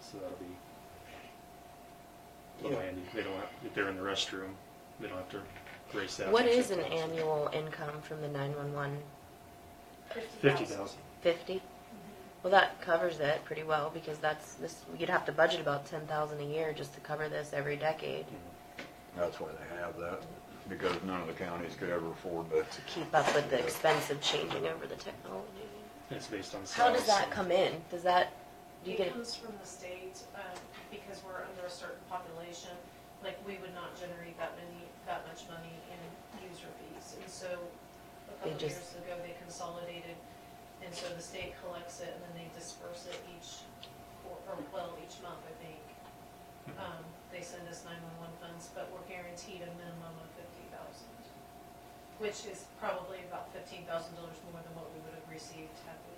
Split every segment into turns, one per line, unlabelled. so that'll be little
Yeah.
handy. They don't have, if they're in the restroom, they don't have to race that.
What is an annual income from the 911?
Fifty thousand.
50? Well, that covers it pretty well because that's, this, you'd have to budget about 10,000 a year just to cover this every decade
Mm-hmm.
That's why they have that, because none of the counties could ever afford to.
to keep up with the expense of changing over the technology.
It's based on.
How does
size.
that come in? Does that, do you get,
It comes from the state, um, because we're under a certain population, like, we would not generate that many, that much money in user fees. And so, a
They
couple of
just-
years ago, they consolidated, and so the state collects it, and then they disperse it each, quar- or, well, each month, I think. Um, They send us nine-one-one funds, but we're guaranteed a minimum of fifty thousand, which is probably about fifteen thousand dollars more than what we would have received had we.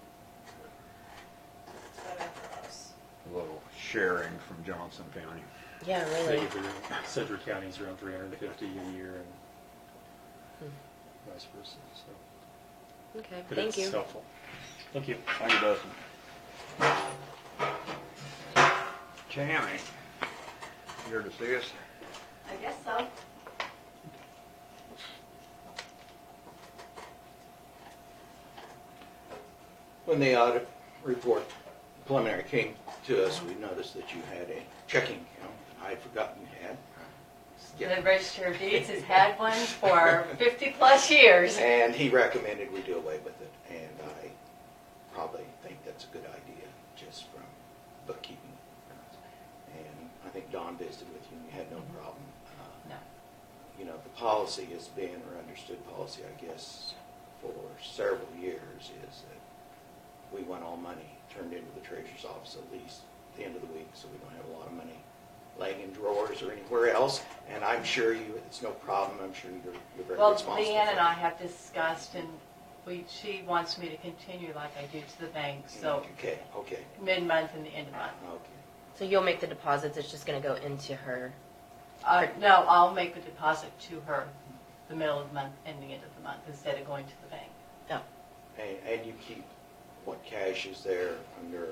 It's better for us.
Little sharing from Johnson County.
yeah,
They
really?
get their- Sedgwick County's around three hundred and fifty a year and vice versa, so.
Okay,
But
Hmm. thank
It's
you.
helpful. Thank you.
Thank you, Dustin. Tammy, here to see us?
I guess so.
When the audit report preliminary came to us, we noticed that you had a checking account I had forgotten you had.
The
Yeah.
Register of Deeds has had one for 50-plus years.
And he recommended we do away with it, and I probably think that's a good idea, just from bookkeeping. And I think Don visited with you, and you had no problem. Uh,
No,
You know, the policy has been, or understood policy, I guess, for several years, is that we want all money turned into the treasurer's office at least the end of the week, so we don't have a lot of money laying in drawers or anywhere else. And I'm sure you, it's no problem, I'm sure you're you're very
Well,
responsible.
Leanne
for
and
it.
I have discussed, and we, she wants me to continue like I do to the bank, so
Okay, okay,
mid-month and the end of month.
okay.
So you'll make the deposits, it's just gonna go into her.
Uh, No, I'll make the deposit to her the middle of the month and the end of the month instead of going to the bank.
Oh,
And, and you keep what cash is there under,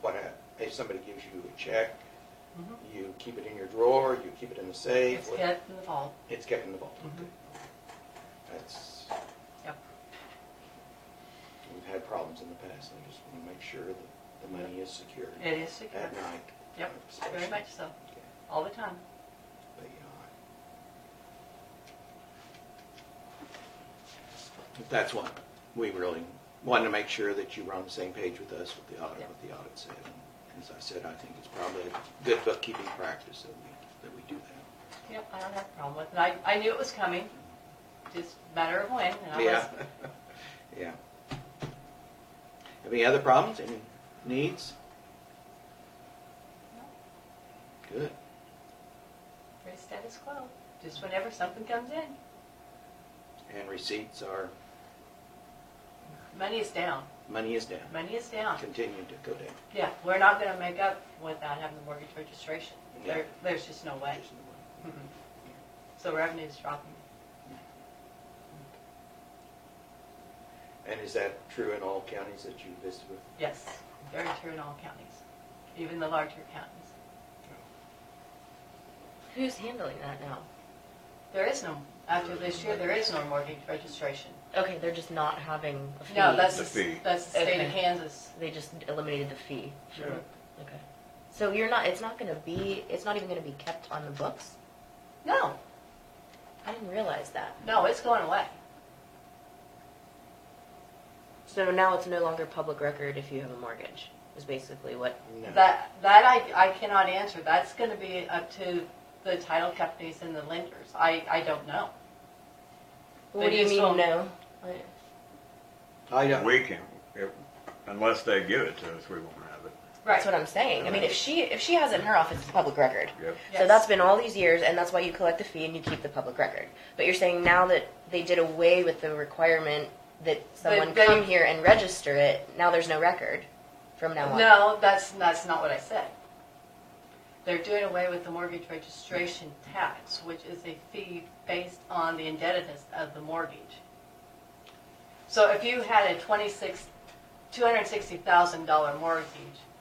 what, ha- if somebody gives you a check,
Mhm.
you keep it in your drawer, you keep it in the safe?
It's
what-
kept in the vault.
It's kept in the vault.
Mhm.
That's,
Yep.
we've had problems in the past, and I just want to make sure that the money is secured
It is secure.
at night.
Yep, very
especially.
much so,
Okay,
all the time.
But, you know, I- That's why we really wanted to make sure that you were on the same page with us with the audit,
Yep.
what the audit said. And As I said, I think it's probably a good bookkeeping practice that we, that we do that.
Yep, I don't have a problem with it. I, I knew it was coming, just a matter of when, and I was
Yeah, yeah. Any other problems, any needs? Good.
pretty status quo, just whenever something comes in.
And receipts are,
Money is down,
money is down,
money is down.
continue to go down.
Yeah, we're not gonna make up without having the mortgage registration.
Yeah.
There, there's just no way. Mhm. So revenue's dropping.
And is that true in all counties that you visited with?
Yes, very true in all counties, even the larger counties.
who's handling that now?
There is no, after this year, there is no mortgage registration.
Okay, they're just not having a fee.
No, that's,
The fee.
that's the state
Okay.
of Kansas.
They just eliminated the fee.
Sure.
Okay. So you're not, it's not gonna be, it's not even gonna be kept on the books?
No,
I didn't realize that.
no, it's going away.
So now it's no longer public record if you have a mortgage, is basically what,
That, that I, I cannot answer. That's gonna be up to the title companies and the lenders. I, I don't know.
what do you
just
mean,
don't-
no? I-
I don't,
We can, it- unless they give it to us, we won't have it.
That's what I'm saying. I mean, if she, if she has it in her office, it's public record.
Yep.
So
Yes.
that's been all these years, and that's why you collect the fee and you keep the public record. But you're saying now that they did away with the requirement that someone
they-
come here and register it, now there's no record from now on.
No, that's, that's not what I said. They're doing away with the mortgage registration tax, which is a fee based on the indebtedness of the mortgage. So if you had a twenty-six, two hundred and sixty thousand dollar mortgage,